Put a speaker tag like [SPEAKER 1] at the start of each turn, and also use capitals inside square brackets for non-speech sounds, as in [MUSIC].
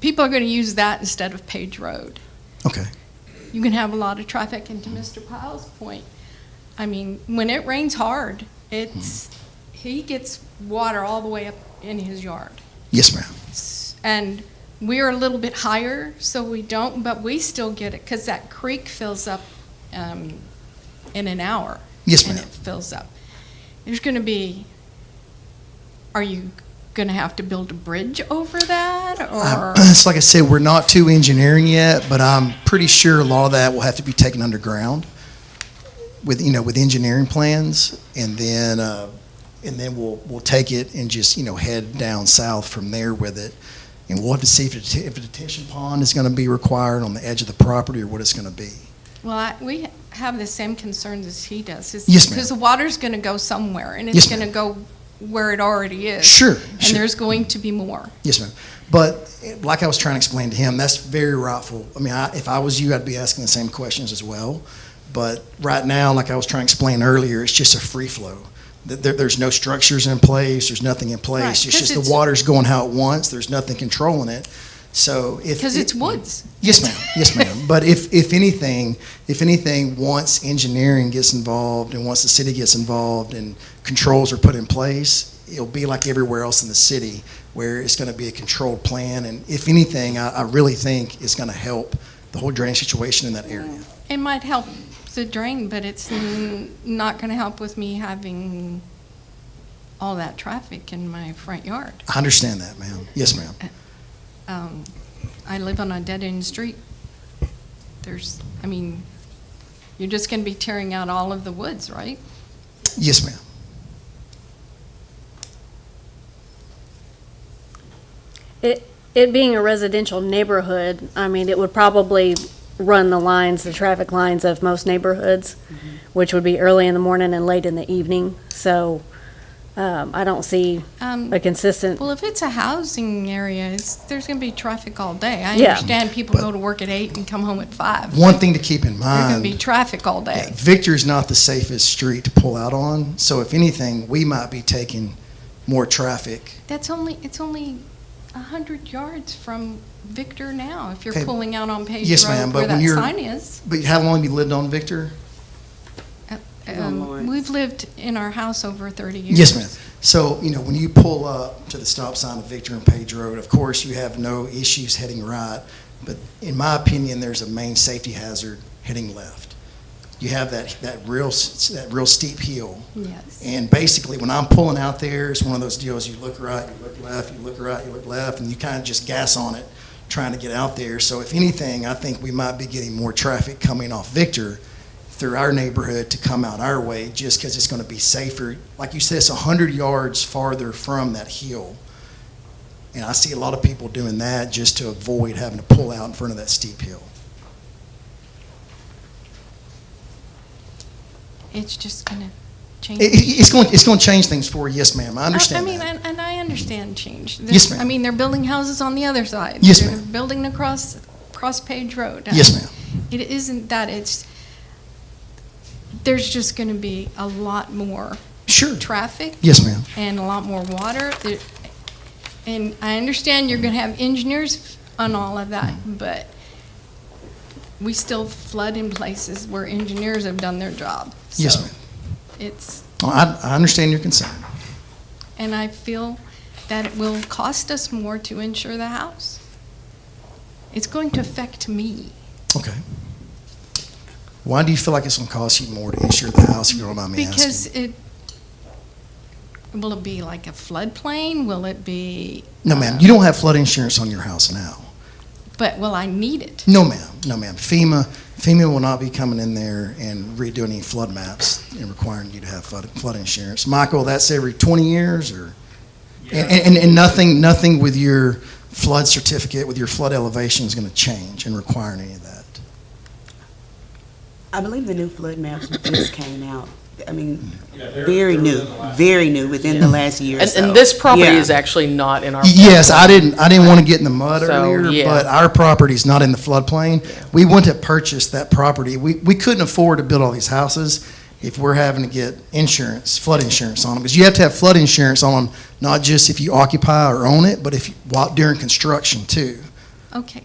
[SPEAKER 1] people are going to use that instead of Page Road.
[SPEAKER 2] Okay.
[SPEAKER 1] You can have a lot of traffic, and to Mr. Pyle's point, I mean, when it rains hard, it's, he gets water all the way up in his yard.
[SPEAKER 2] Yes, ma'am.
[SPEAKER 1] S- And we're a little bit higher, so we don't, but we still get it, because that creek fills up um, in an hour.
[SPEAKER 2] Yes,
[SPEAKER 1] And
[SPEAKER 2] ma'am.
[SPEAKER 1] it fills up. There's going to be, are you going to have to build a bridge over that,
[SPEAKER 2] Uh,
[SPEAKER 1] or?
[SPEAKER 2] [CLEARS THROAT] it's like I said, we're not too engineering yet, but I'm pretty sure a lot of that will have to be taken underground with you know with engineering plans, and then uh, and then we'll we'll take it and just you know head down south from there with it, and we'll have to see if, it, if a detention pond is going to be required on the edge of the property or what it's going to be.
[SPEAKER 1] Well, I, we have the same concerns as he does. It's
[SPEAKER 2] Yes, ma'am.
[SPEAKER 1] Because the water's going to go somewhere, and
[SPEAKER 2] Yes,
[SPEAKER 1] it's going to
[SPEAKER 2] ma'am.
[SPEAKER 1] go where it already is.
[SPEAKER 2] Sure,
[SPEAKER 1] And
[SPEAKER 2] sure.
[SPEAKER 1] there's going to be more.
[SPEAKER 2] Yes, ma'am. But eh, like I was trying to explain to him, that's very rightful. I mean, I, if I was you, I'd be asking the same questions as well. But right now, like I was trying to explain earlier, it's just a free flow. Th- There, there's no structures in place. There's nothing in place.
[SPEAKER 1] Right,
[SPEAKER 2] it's
[SPEAKER 1] 'cause
[SPEAKER 2] just
[SPEAKER 1] it's-
[SPEAKER 2] the water's going how it wants. There's nothing controlling it. So if
[SPEAKER 1] Because
[SPEAKER 2] it-
[SPEAKER 1] it's woods.
[SPEAKER 2] Yes, ma'am. Yes, ma'am. But if, if anything, if anything, once engineering gets involved and once the city gets involved and controls are put in place, it'll be like everywhere else in the city where it's going to be a controlled plan. And if anything, I, I really think it's going to help the whole drainage situation in that area.
[SPEAKER 1] It might help the drain, but it's n- not going to help with me having all that traffic in my front yard.
[SPEAKER 2] I understand that, ma'am. Yes, ma'am.
[SPEAKER 1] Um, I live on a dead-end street. There's, I mean, you're just going to be tearing out all of the woods, right?
[SPEAKER 2] Yes, ma'am.
[SPEAKER 3] It, it being a residential neighborhood, I mean, it would probably run the lines, the traffic lines of most neighborhoods, which would be early in the morning and late in the evening. So um, I don't see
[SPEAKER 1] Um,
[SPEAKER 3] a consistent,
[SPEAKER 1] Well, if it's a housing area, it's, there's going to be traffic all day. I
[SPEAKER 3] Yeah.
[SPEAKER 1] understand people
[SPEAKER 2] But-
[SPEAKER 1] go to work at eight and come home at five.
[SPEAKER 2] One thing to keep in
[SPEAKER 1] There's going to be
[SPEAKER 2] mind,
[SPEAKER 1] traffic all day.
[SPEAKER 2] Victor's not the safest street to pull out on. So if anything, we might be taking more traffic
[SPEAKER 1] That's only it's only a hundred yards from Victor now. If you're
[SPEAKER 2] Okay.
[SPEAKER 1] pulling out on Page
[SPEAKER 2] Yes,
[SPEAKER 1] Road
[SPEAKER 2] ma'am, but
[SPEAKER 1] where
[SPEAKER 2] when
[SPEAKER 1] that
[SPEAKER 2] you're-
[SPEAKER 1] sign is,
[SPEAKER 2] But how long have you lived on Victor?
[SPEAKER 1] um, we've lived in our house over thirty years.
[SPEAKER 2] Yes, ma'am. So, you know, when you pull up to the stop sign of Victor and Page Road, of course, you have no issues heading right. But in my opinion, there's a main safety hazard heading left. You have that, that real, s- that real steep hill.
[SPEAKER 1] Yes.
[SPEAKER 2] And basically, when I'm pulling out there, it's one of those deals, you look right, you look left, you look right, you look left, and you kind of just gas on it, trying to get out there. So if anything, I think we might be getting more traffic coming off Victor through our neighborhood to come out our way, just because it's going to be safer. Like you said, it's 100 yards farther from that hill. And I see a lot of people doing that just to avoid having to pull out in front of that steep hill.
[SPEAKER 1] It's just going to change.
[SPEAKER 2] It, it- it's going, it's going to change things for you, yes, ma'am, I
[SPEAKER 1] I-
[SPEAKER 2] understand
[SPEAKER 1] I mean,
[SPEAKER 2] that.
[SPEAKER 1] and, and I understand change. There's-
[SPEAKER 2] Yes, ma'am.
[SPEAKER 1] I mean, they're building houses on the other side.
[SPEAKER 2] Yes,
[SPEAKER 1] They're
[SPEAKER 2] ma'am.
[SPEAKER 1] Building across, across Page Road.
[SPEAKER 2] Yes, ma'am.
[SPEAKER 1] It isn't that, it's, there's just gonna be a lot more
[SPEAKER 2] Sure.
[SPEAKER 1] traffic
[SPEAKER 2] Yes, ma'am.
[SPEAKER 1] and a lot more water. There- And I understand you're gonna have engineers on all of that, but we still flood in places where engineers have done their job.
[SPEAKER 2] Yes,
[SPEAKER 1] So
[SPEAKER 2] ma'am.
[SPEAKER 1] It's,
[SPEAKER 2] I, I understand your concern.
[SPEAKER 1] and I feel that it will cost us more to insure the house. It's going to affect me.
[SPEAKER 2] Okay. Why do you feel like it's going to cost you more to insure the house, if you don't mind me
[SPEAKER 1] Because
[SPEAKER 2] asking?
[SPEAKER 1] it, will it be like a floodplain? Will it be,
[SPEAKER 2] No, ma'am, you don't have flood insurance on your house now.
[SPEAKER 1] but will I need it?
[SPEAKER 2] No, ma'am, no, ma'am. FEMA, FEMA will not be coming in there and redoing any flood maps and requiring you to have flood, flood insurance. Michael, that's every 20 years or? And, and, and nothing, nothing with your flood certificate, with your flood elevation is going to change and require any of that?
[SPEAKER 4] I believe the new flood maps just came out. I mean, very new, very new, within the last year or
[SPEAKER 5] And,
[SPEAKER 4] so.
[SPEAKER 5] and this property
[SPEAKER 4] Yeah.
[SPEAKER 5] is actually not in our.
[SPEAKER 2] Yes, I didn't, I didn't want to get in the mud
[SPEAKER 5] So,
[SPEAKER 2] earlier,
[SPEAKER 5] yeah.
[SPEAKER 2] but our property's not in the floodplain. We wouldn't have purchased that property. We, we couldn't afford to build all these houses if we're having to get insurance, flood insurance on them. Because you have to have flood insurance on them, not just if you occupy or own it, but if, you- while during construction too.
[SPEAKER 1] Okay.